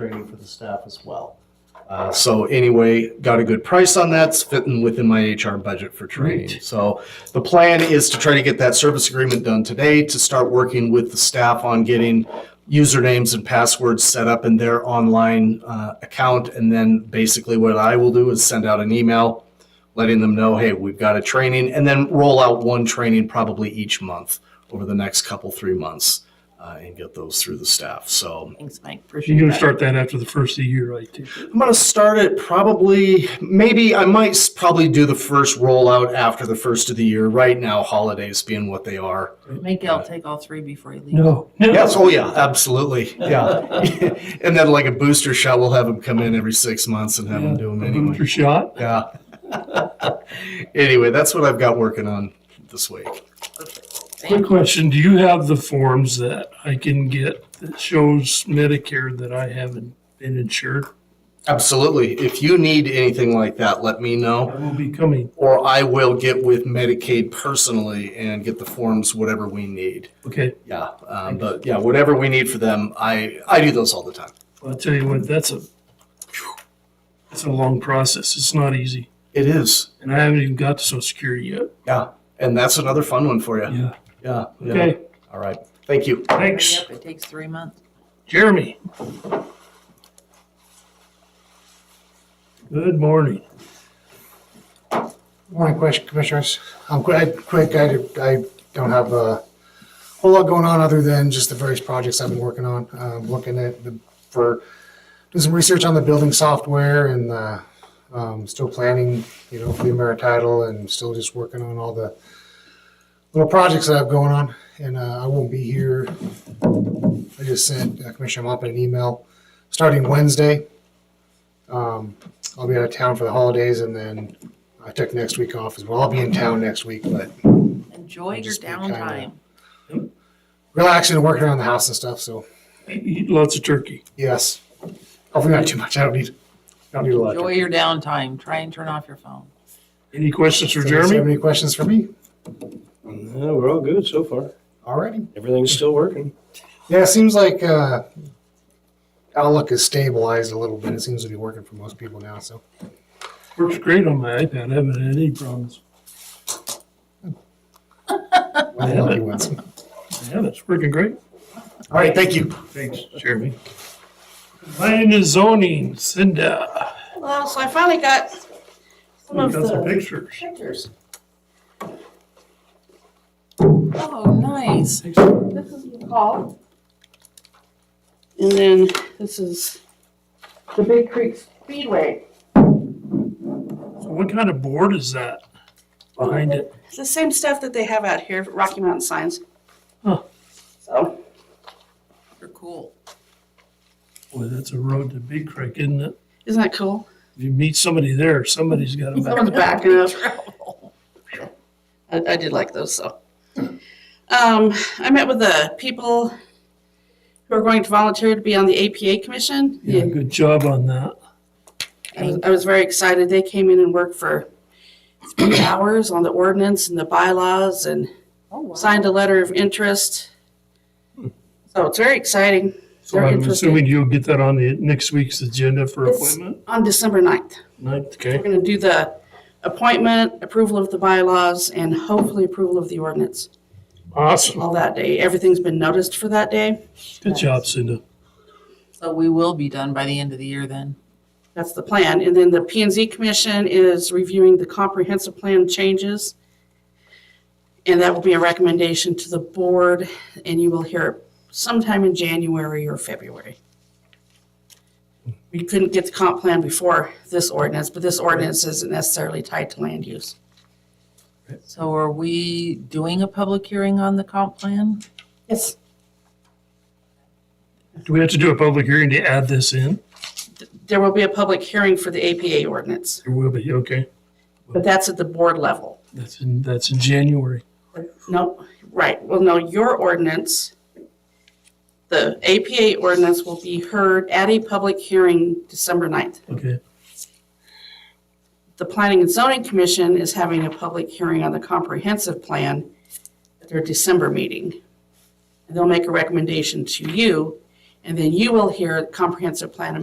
training for the staff as well. Uh, so anyway, got a good price on that. It's fitting within my HR budget for training. So the plan is to try to get that service agreement done today to start working with the staff on getting usernames and passwords set up in their online uh, account. And then basically what I will do is send out an email letting them know, hey, we've got a training, and then roll out one training probably each month over the next couple, three months uh, and get those through the staff. So Thanks, Mike. You're Appreciate gonna that. start that after the first of the year, I take it. I'm going to start it probably, maybe I might s- probably do the first rollout after the first of the year. Right now, holidays being what they are. Make Gail take all three before you leave. No. Yes. Oh, yeah. Absolutely. Yeah. and then, like a booster shot, we'll have them come in every six months and have them do them anyway. Booster shot. Yeah. anyway, that's what I've got working on this week. Quick question, do you have the forms that I can get that shows Medicare that I haven't been insured? Absolutely. If you need anything like that, let me know. I will be coming. Or I will get with Medicaid personally and get the forms, whatever we need. Okay, Yeah, um, but yeah, whatever we need for them, I, I do those all the time. I'll tell you what, that's a, it's a long process. It's not easy. It is. And I haven't even got to social security yet. Yeah. And that's another fun one for you. Yeah. Yeah. yeah. Okay, All right. Thank you. thanks. Yep, it takes three months. Jeremy. Good morning. Morning, question, commissioners. I'm quick, quick, I, I don't have a whole lot going on other than just the various projects I've been working on. Um, looking at the, for, doing some research on the building software and, uh, um, still planning, you know, for the Amerititle and still just working on all the little projects that I have going on. And, uh, I won't be here. I just sent uh, Commissioner Mopin an email starting Wednesday. Um, I'll be out of town for the holidays and then I took next week off as well. I'll be in town next week, but Enjoy your Just be kinda- downtime. relaxing and working around the house and stuff. So Eat lots of turkey. yes, hopefully not too much. I don't need, I don't need a lot. Enjoy your downtime. Try and turn off your phone. Any questions for So, does you have Jeremy? any questions for me? No, we're all good so far. Alrighty. Everything's still working. Yeah, it seems like uh, Outlook is stabilized a little bit. It seems to be working for most people now. So Works great on my iPad. I haven't had any problems. one of the lucky ones. Yeah, it's working great. All right. Thank you. Thanks, Jeremy. Land and zoning, Cinda. Well, so I finally got some You of got some the pictures. pictures. Oh, nice. This is the hall. And then this is the Big Creek Speedway. What kind of board is that behind it? It's the same stuff that they have out here, at Rocky Mountain Signs. Huh. So, You're cool. Boy, that's a road to Big Creek, isn't it? isn't that cool? If you meet somebody there, somebody's got a From back. the back of. Travel. I, I did like those, so. Um, I met with the people who are going to volunteer to be on the APA Commission. Yeah, good job on that. I was, I was very excited. They came in and worked for three hours on the ordinance and the bylaws and Oh, signed a letter of interest. So it's very exciting. Hmm. So They're I'm interested. assuming you'll get that on the next week's agenda for It's- appointment? On December 9th, Ninth, okay. we're going to do the appointment, approval of the bylaws, and hopefully approval of the ordinance Awesome. all that day. Everything's been noticed for that day. Good job, Cinda. So we will be done by the end of the year then. That's the plan. And then the P and Z Commission is reviewing the comprehensive plan changes. And that will be a recommendation to the board, and you will hear it sometime in January or February. We couldn't get the comp plan before this ordinance, but this ordinance isn't necessarily tied to land use. So are we doing a public hearing on the comp plan? Yes. Do we have to do a public hearing to add this in? There will be a public hearing for the APA ordinance, There will be, okay. but that's at the board level. That's in, that's in January. No, right, well, no, your ordinance, the APA ordinance will be heard at a public hearing December 9th. Okay, The Planning and Zoning Commission is having a public hearing on the comprehensive plan at their December meeting. And They'll make a recommendation to you, And then you will hear comprehensive plan